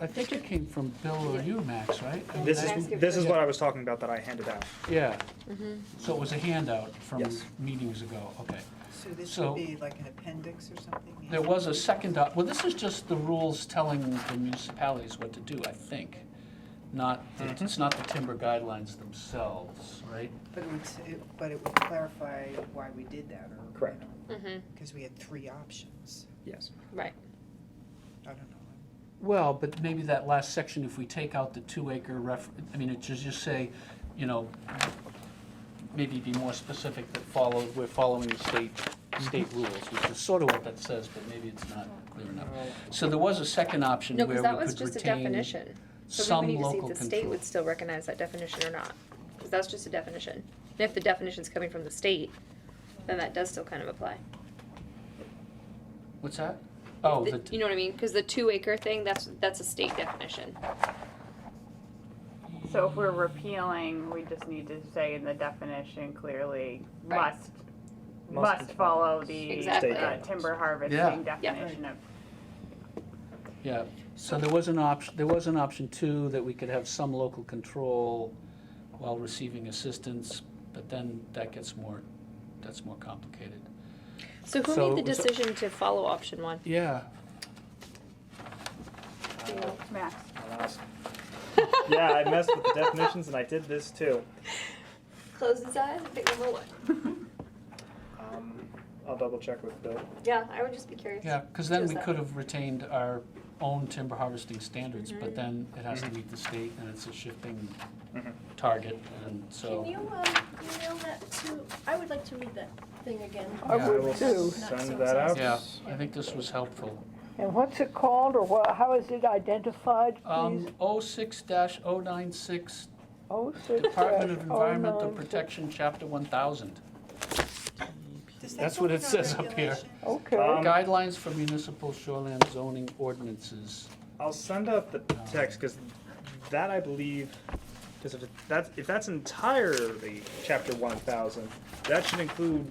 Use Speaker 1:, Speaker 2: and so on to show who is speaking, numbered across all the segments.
Speaker 1: I think it came from Bill or you, Max, right? I mean,
Speaker 2: This
Speaker 1: I-
Speaker 2: is, this is what I was talking about that I handed out.
Speaker 1: Yeah.
Speaker 3: Mm-hmm,
Speaker 1: So it was a handout from
Speaker 2: Yes.
Speaker 1: meetings ago, okay.
Speaker 4: So this
Speaker 1: So-
Speaker 4: should be like an appendix or something? yeah?
Speaker 1: There was a second, doc- well, this is just the rules telling the municipalities what to do, I think. Not, the-
Speaker 2: Mm-hmm.
Speaker 1: it's not the timber guidelines themselves, right?
Speaker 4: But it would, s- it- but it would clarify why we did that or.
Speaker 2: Correct.
Speaker 3: Mhm.
Speaker 4: Because we had three options.
Speaker 2: Yes.
Speaker 3: Right.
Speaker 4: I don't know.
Speaker 1: Well, but maybe that last section, if we take out the two acre ref, I mean, it should just say, you know, maybe be more specific that follow, we're following the state, state
Speaker 3: Mm-hmm.
Speaker 1: rules, which is sort of what that says, but maybe it's not clear enough. So there was a second option
Speaker 3: No,
Speaker 1: where we
Speaker 3: because
Speaker 1: could
Speaker 3: that
Speaker 1: retain
Speaker 3: was just a definition. So
Speaker 1: some
Speaker 3: we would need to see
Speaker 1: local
Speaker 3: if the state
Speaker 1: control.
Speaker 3: would still recognize that definition or not, because that's just a definition. And if the definition's coming from the state, then that does still kind of apply.
Speaker 1: What's that? Oh,
Speaker 3: The-
Speaker 1: the,
Speaker 3: You know what I mean? Because the two acre thing, that's, that's a state definition.
Speaker 5: So if we're repealing, we just need to say in the definition clearly,
Speaker 3: Right.
Speaker 5: must,
Speaker 2: Must
Speaker 5: must follow the
Speaker 3: Exactly.
Speaker 5: uh, timber
Speaker 1: Yeah.
Speaker 5: harvesting definition of.
Speaker 1: yeah, so there was an option, there was an option two, that we could have some local control while receiving assistance, but then that gets more, that's more complicated.
Speaker 3: So who
Speaker 1: So-
Speaker 3: made the
Speaker 1: so-
Speaker 3: decision to follow option one?
Speaker 1: Yeah,
Speaker 5: Max,
Speaker 2: Yeah, I messed with the definitions and I did this too.
Speaker 3: Close his eyes and pick number one.
Speaker 2: Um, I'll double check with Bill.
Speaker 3: Yeah, I would just be curious.
Speaker 1: Yeah, because then
Speaker 3: Just
Speaker 1: we
Speaker 3: that.
Speaker 1: could have retained our own timber harvesting standards, but then it has to meet the state, and it's a shifting
Speaker 2: Mhm.
Speaker 1: target, and
Speaker 6: Can
Speaker 1: so.
Speaker 6: you, um, email that to, I would like to read that thing again.
Speaker 7: I
Speaker 1: Yeah.
Speaker 2: I will
Speaker 7: would too.
Speaker 6: Not so
Speaker 2: send that out.
Speaker 1: Yeah, I think this was helpful.
Speaker 7: And what's it called, or what, how is it identified, please?
Speaker 1: Um, oh six dash oh nine six,
Speaker 7: Oh, six
Speaker 1: Department of
Speaker 7: dash oh
Speaker 1: Environmental
Speaker 7: nine six.
Speaker 1: Protection, Chapter one thousand.
Speaker 4: Does that
Speaker 1: That's
Speaker 4: come
Speaker 1: what it
Speaker 4: with our
Speaker 1: says up here.
Speaker 4: regulations?
Speaker 7: Okay,
Speaker 2: Um,
Speaker 1: Guidelines for municipal shoreline zoning ordinances.
Speaker 2: I'll send out the text because that I believe, because if that's if that's entirely chapter one thousand, that should include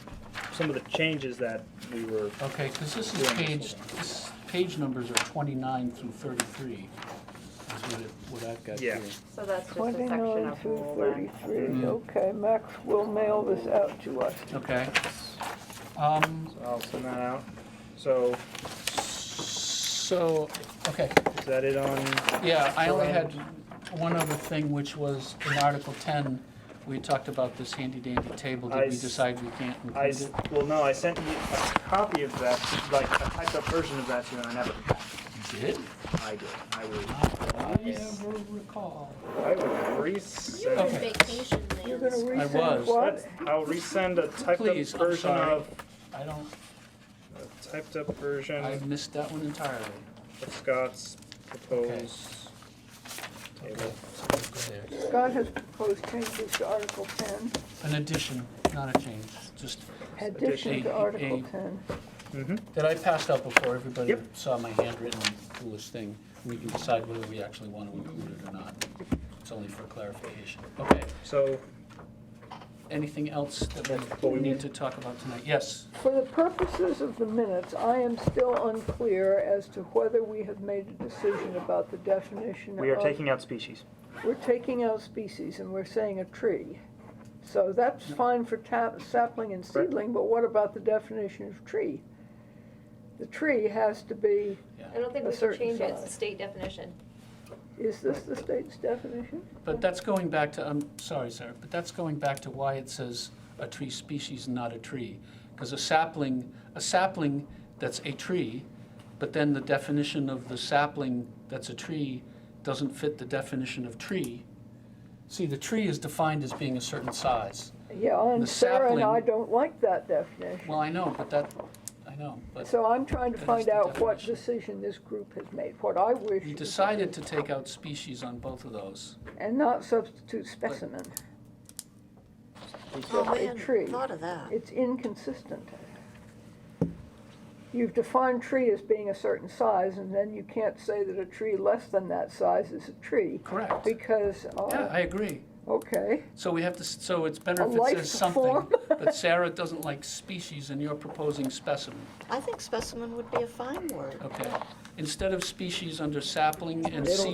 Speaker 2: some of the changes that we were.
Speaker 1: Okay, because this is
Speaker 2: Yeah, this
Speaker 1: page,
Speaker 2: one.
Speaker 1: this, page numbers are twenty-nine through thirty-three, is what it, what I've got
Speaker 2: Yeah.
Speaker 1: here.
Speaker 5: so that's just a section
Speaker 7: twenty-nine
Speaker 5: of
Speaker 7: through
Speaker 5: rule then.
Speaker 1: Mm.
Speaker 7: thirty-three, okay, Max will mail this out to us.
Speaker 1: Okay. Um,
Speaker 2: So I'll send that out. So
Speaker 1: So, okay,
Speaker 2: is that it on?
Speaker 1: yeah, I only had one other thing, which was in Article 10, we talked about this handy dandy table.
Speaker 2: I
Speaker 1: Did we
Speaker 2: s-
Speaker 1: decide we can't
Speaker 2: I
Speaker 1: include
Speaker 2: s-
Speaker 1: it?
Speaker 2: well no, I sent you a copy of that, like a typed up version of that to you, and I never.
Speaker 1: You did?
Speaker 2: I did. I would.
Speaker 1: I ever recall.
Speaker 2: I would
Speaker 6: You're on
Speaker 2: resend.
Speaker 1: Okay.
Speaker 6: vacation,
Speaker 7: You're
Speaker 6: Lance.
Speaker 7: gonna resend
Speaker 1: was.
Speaker 7: what?
Speaker 2: I'll resend a typed
Speaker 1: Please, I'm
Speaker 2: up version
Speaker 1: sorry.
Speaker 2: of
Speaker 1: I don't,
Speaker 2: a typed up version
Speaker 1: I missed that one entirely.
Speaker 2: of Scott's proposed
Speaker 1: Okay,
Speaker 2: table.
Speaker 1: so we'll go there.
Speaker 7: Scott has proposed changes to Article ten,
Speaker 1: An addition, not a change, just,
Speaker 7: addition
Speaker 1: A-
Speaker 7: to Article
Speaker 1: a-
Speaker 7: ten.
Speaker 2: Mm-hmm.
Speaker 1: that I passed out before everybody
Speaker 2: Yep.
Speaker 1: saw my handwritten foolish thing. We can decide whether we actually want to include it or not. It's only for clarification. Okay.
Speaker 2: So
Speaker 1: Anything else that
Speaker 2: What
Speaker 1: we
Speaker 2: we
Speaker 1: need
Speaker 2: mean?
Speaker 1: to talk about tonight? Yes,
Speaker 7: For the purposes of the minutes, I am still unclear as to whether we have made a decision about the definition of.
Speaker 2: we are taking out species.
Speaker 7: We're taking out species and we're saying a tree. So that's fine for tap, sapling and
Speaker 2: Correct.
Speaker 7: seedling, but what about the definition of tree? The tree has to be,
Speaker 3: I don't think
Speaker 7: A
Speaker 3: we can
Speaker 7: certain
Speaker 3: change it, it's a
Speaker 7: size.
Speaker 3: state definition.
Speaker 7: is this the state's definition?
Speaker 1: but that's going back to, I'm sorry, sir, but that's going back to why it says a tree species, not a tree. Because a sapling, a sapling that's a tree, but then the definition of the sapling that's a tree doesn't fit the definition of tree. See, the tree is defined as being a certain size.
Speaker 7: Yeah,
Speaker 1: The
Speaker 7: and Sarah and I
Speaker 1: sapling-
Speaker 7: don't like that definition.
Speaker 1: Well, I know, but that, I know, but
Speaker 7: So I'm trying to
Speaker 1: That is
Speaker 7: find
Speaker 1: the
Speaker 7: out what
Speaker 1: definition.
Speaker 7: decision this group has made, what I wish.
Speaker 1: we decided to take out species on both of those.
Speaker 7: And not substitute specimen.
Speaker 6: Oh,
Speaker 7: A
Speaker 6: man,
Speaker 7: tree.
Speaker 6: thought of that.
Speaker 7: It's inconsistent. You've defined tree as being a certain size, and then you can't say that a tree less than that size is a tree,
Speaker 1: Correct.
Speaker 7: because, uh,
Speaker 1: Yeah, I agree.
Speaker 7: Okay,
Speaker 1: So we have to, s- so it's better
Speaker 7: A
Speaker 1: if it
Speaker 7: life
Speaker 1: says something.
Speaker 7: form.
Speaker 1: But Sarah doesn't like species and you're proposing specimen,
Speaker 8: I think specimen would be a fine word.
Speaker 1: okay? Instead of species under sapling and
Speaker 7: They don't
Speaker 1: seed.